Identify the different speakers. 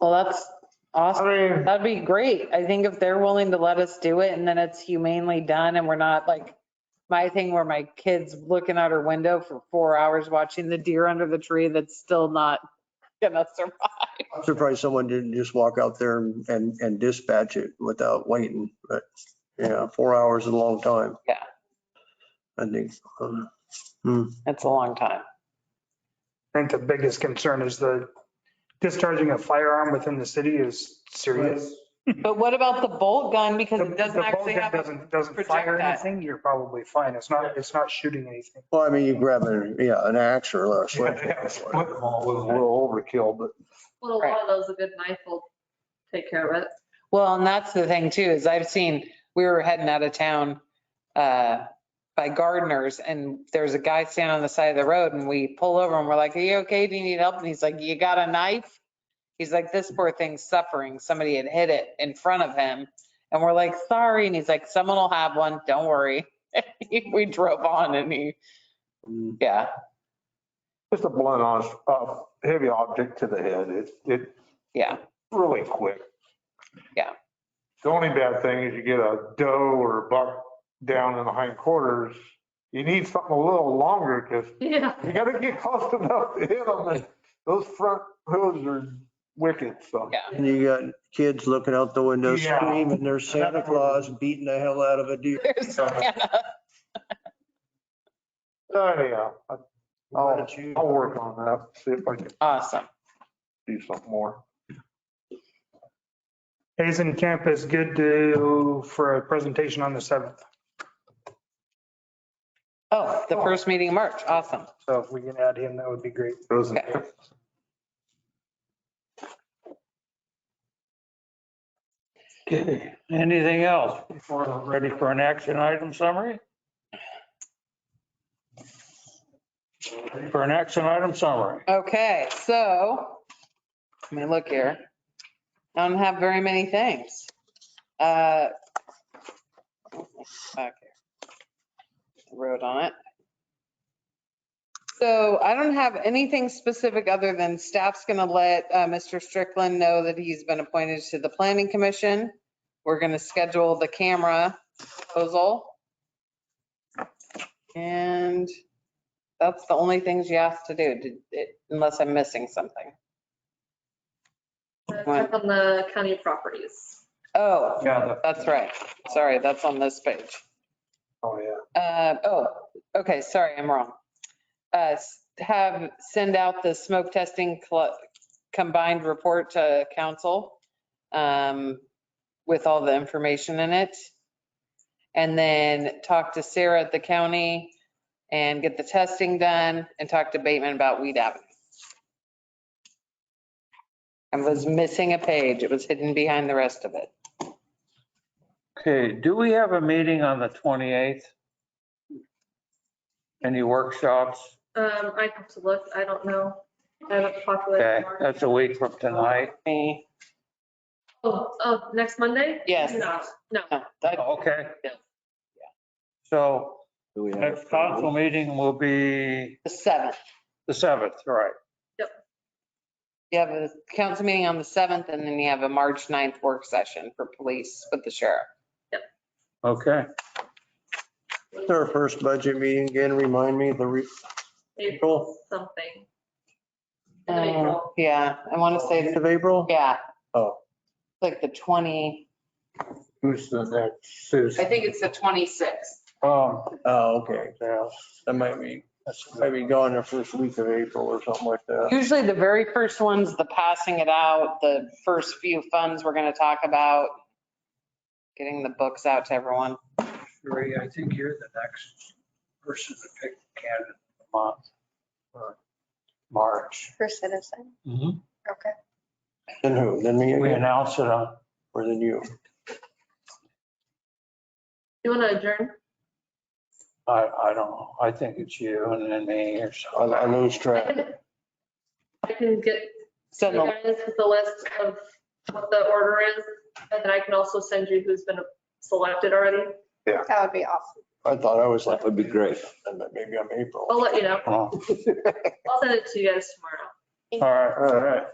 Speaker 1: Well, that's awesome.
Speaker 2: I mean,
Speaker 1: That'd be great. I think if they're willing to let us do it and then it's humanely done and we're not like my thing where my kid's looking out her window for four hours watching the deer under the tree that's still not gonna survive.
Speaker 3: I'm surprised someone didn't just walk out there and, and and dispatch it without waiting, but yeah, four hours is a long time.
Speaker 1: Yeah.
Speaker 3: I think, um,
Speaker 1: That's a long time.
Speaker 2: I think the biggest concern is the discharging a firearm within the city is serious.
Speaker 1: But what about the bolt gun? Because
Speaker 2: The
Speaker 1: it doesn't
Speaker 2: the bolt
Speaker 1: actually
Speaker 2: gun
Speaker 1: have, a-
Speaker 2: doesn't, doesn't fire
Speaker 1: projectile.
Speaker 2: anything, you're probably fine. It's not, it's not shooting anything.
Speaker 3: well, I mean, you grab an, yeah, an axe or a
Speaker 2: Yeah,
Speaker 3: sling.
Speaker 2: yeah, split them all with a
Speaker 3: A
Speaker 2: little-
Speaker 3: little overkill, but
Speaker 4: Well, a lot of those, a good knife will take care of it.
Speaker 1: well, and that's the thing too, is I've seen, we were heading out of town uh, by gardeners and there's a guy standing on the side of the road and we pull over and we're like, are you okay? Do you need help? And he's like, you got a knife? He's like, this poor thing's suffering. Somebody had hit it in front of him. And we're like, sorry. And he's like, someone will have one. Don't worry. We drove on and he,
Speaker 3: mm,
Speaker 1: yeah,
Speaker 5: Just a blunt, honest, uh, heavy object to the head. It, it
Speaker 1: yeah.
Speaker 5: really quick.
Speaker 1: Yeah.
Speaker 5: The only bad thing is you get a doe or a buck down in the hindquarters. You need something a little longer because
Speaker 4: Yeah.
Speaker 5: you gotta get close enough to hit them. and Those front hooves are wicked, so.
Speaker 1: Yeah.
Speaker 3: and you got kids looking out the window
Speaker 5: Yeah.
Speaker 3: screaming, there's Santa Claus beating the hell out of a deer.
Speaker 1: There's Santa.
Speaker 5: Anyhow, I- Oh.
Speaker 3: What about you?
Speaker 5: I'll work on that, see if I can
Speaker 1: Awesome.
Speaker 5: do something more.
Speaker 2: Hazen Camp is good to, for a presentation on the 7th.
Speaker 1: Oh, the first meeting in March. Awesome.
Speaker 2: So if we can add him, that would be great.
Speaker 5: Those-
Speaker 1: Okay.
Speaker 6: Okay, anything else before we're ready for an action item summary? Ready For an action item summary.
Speaker 1: Okay, so, let me look here. I don't have very many things. Uh back here. Wrote on it. So I don't have anything specific other than staff's going to let uh, Mr. Strickland know that he's been appointed to the planning commission. We're going to schedule the camera proposal. And that's the only things you have to do, did- it- unless I'm missing something.
Speaker 4: Check on the county properties.
Speaker 1: Oh,
Speaker 2: Yeah, the
Speaker 1: that's right. Sorry, that's on this page.
Speaker 5: Oh, yeah.
Speaker 1: Uh, oh, okay, sorry, I'm wrong. Uh, s- have, send out the smoke testing cl- combined report to council, um, with all the information in it. And then talk to Sarah at the county and get the testing done and talk to Bateman about weed avenue. I was missing a page. It was hidden behind the rest of it.
Speaker 6: Okay, do we have a meeting on the 28th? Any workshops?
Speaker 4: Um, I have to look, I don't know. I haven't
Speaker 6: Okay,
Speaker 4: populated. more.
Speaker 6: that's a week from tonight.
Speaker 1: Me,
Speaker 4: Oh, oh, next Monday?
Speaker 1: Yes.
Speaker 4: No, no.
Speaker 1: no, that-
Speaker 6: Okay. So
Speaker 3: Do we have-
Speaker 6: next council meeting will be
Speaker 1: the seventh.
Speaker 6: the 7th, right?
Speaker 1: You have a council meeting on the 7th and then you have a March 9th work session for police with the sheriff.
Speaker 6: Okay.
Speaker 3: What's Our first budget meeting again, remind me, the, re-
Speaker 4: April something. In
Speaker 6: Um,
Speaker 4: April.
Speaker 1: Um, Yeah, I want to say,
Speaker 3: of April?
Speaker 1: yeah.
Speaker 3: Oh.
Speaker 1: Like the 20,
Speaker 5: Who's the next?
Speaker 1: I
Speaker 5: Susan?
Speaker 1: think it's the 26th.
Speaker 6: Um,
Speaker 3: Oh, okay.
Speaker 6: yeah.
Speaker 3: That might be, that's maybe gone the first week of April or something like that.
Speaker 1: Usually the very first one's the passing it out, the first few funds we're going to talk about, getting the books out to everyone.
Speaker 6: Sheree, I think you're the next person to pick candidate of the month for March.
Speaker 7: For citizen, okay.
Speaker 3: Then who? Then me
Speaker 6: We
Speaker 3: again?
Speaker 6: announce it on,
Speaker 3: Or then you?
Speaker 4: You want to adjourn?
Speaker 6: I, I don't know, I think it's you and then me or
Speaker 3: I I
Speaker 6: something.
Speaker 3: lose
Speaker 4: I
Speaker 3: track.
Speaker 4: can- I can get you
Speaker 1: Send them,
Speaker 4: guys with the list of what the order is, and then I can also send you who's been selected already.
Speaker 7: That would be awesome.
Speaker 3: I thought I was like. That'd be great. Maybe I'm April.
Speaker 4: I'll let you know.
Speaker 6: All
Speaker 4: I'll send it to you guys tomorrow.
Speaker 6: right,
Speaker 3: All right.